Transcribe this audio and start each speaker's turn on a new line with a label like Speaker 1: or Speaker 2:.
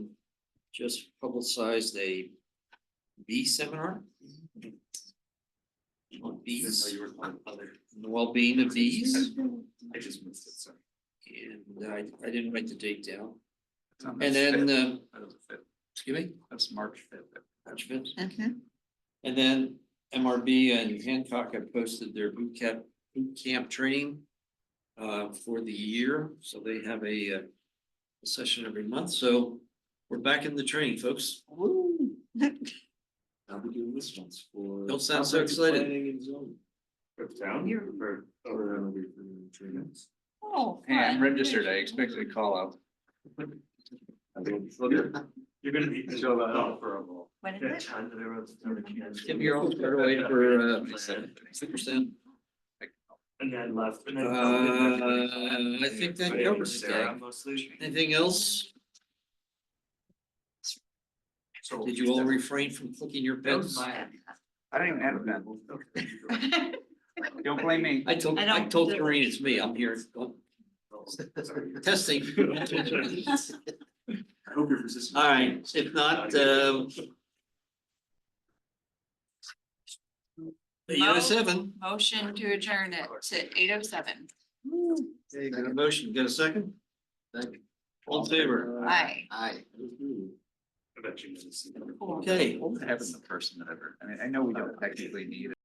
Speaker 1: just publicized a bee seminar. On bees,
Speaker 2: you were talking about other.
Speaker 1: and the well-being of bees,
Speaker 2: I just missed it, sorry.
Speaker 1: and I, I didn't write the date down.
Speaker 2: That's on the
Speaker 1: And then,
Speaker 2: fifth.
Speaker 1: uh,
Speaker 2: That was the fifth.
Speaker 1: excuse me,
Speaker 2: That's March fifth.
Speaker 1: March fifth.
Speaker 3: Okay.
Speaker 1: And then MRB and Hancock have posted their boot camp, boot camp training uh, for the year, so they have a uh, a session every month, so we're back in the training, folks.
Speaker 2: I'll be doing this once for.
Speaker 1: Don't sound so excited.
Speaker 2: For the town here or? Or that'll be for three minutes.
Speaker 3: Oh.
Speaker 4: Hey, I'm
Speaker 3: fun.
Speaker 4: registered, I expected a call out.
Speaker 2: You're gonna be. Show that up for a while.
Speaker 3: When is it?
Speaker 2: time that everyone's starting to cancel.
Speaker 1: Tim, you're on your way for uh, six percent.
Speaker 2: And then left. and
Speaker 1: Uh,
Speaker 2: then-
Speaker 1: I think that
Speaker 2: Yeah,
Speaker 1: covers
Speaker 2: Sarah
Speaker 1: it.
Speaker 2: Mostly.
Speaker 1: Anything else?
Speaker 2: So-
Speaker 1: Did you all refrain from clicking your
Speaker 2: That was
Speaker 1: pens?
Speaker 2: my.
Speaker 4: I don't even have a pen. Don't blame me.
Speaker 1: I told,
Speaker 3: I
Speaker 1: I
Speaker 3: don't-
Speaker 1: told Doreen it's me, I'm here testing.
Speaker 2: I hope you're persistent.
Speaker 1: All right, if not, um. The
Speaker 3: Mo?
Speaker 1: year seven,
Speaker 3: Motion to adjourn it to eight oh seven.
Speaker 1: Okay, got a motion, got a second? All in favor?
Speaker 3: Aye.
Speaker 1: Aye.
Speaker 2: I bet you didn't see that.
Speaker 3: Cool.
Speaker 1: Okay.
Speaker 4: What happened to the person that ever, I mean, I know we don't technically need it.